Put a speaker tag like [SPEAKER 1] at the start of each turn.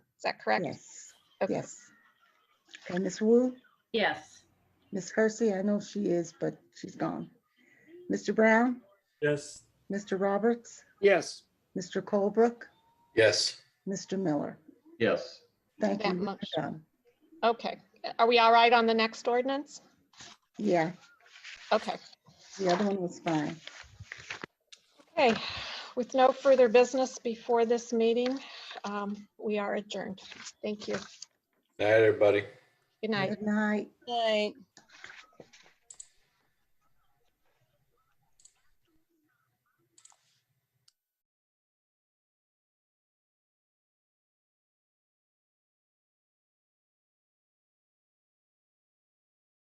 [SPEAKER 1] Is that correct?
[SPEAKER 2] Yes,
[SPEAKER 1] Okay.
[SPEAKER 2] yes. And Ms. Wu,
[SPEAKER 3] Yes.
[SPEAKER 2] Ms. Hersey, I know she is, but she's gone. Mr. Brown,
[SPEAKER 4] Yes.
[SPEAKER 2] Mr. Roberts,
[SPEAKER 4] Yes.
[SPEAKER 2] Mr. Colebrook,
[SPEAKER 5] Yes.
[SPEAKER 2] Mr. Miller.
[SPEAKER 5] Yes.
[SPEAKER 2] Thank
[SPEAKER 1] That
[SPEAKER 2] you. We're
[SPEAKER 1] motion-
[SPEAKER 2] done.
[SPEAKER 1] Okay. Are we all right on the next ordinance?
[SPEAKER 2] Yeah,
[SPEAKER 1] Okay.
[SPEAKER 2] the other one was fine.
[SPEAKER 1] Okay. With no further business before this meeting, um, we are adjourned. Thank you.
[SPEAKER 5] Night, everybody.
[SPEAKER 1] Good night.
[SPEAKER 2] Good night.
[SPEAKER 6] Night.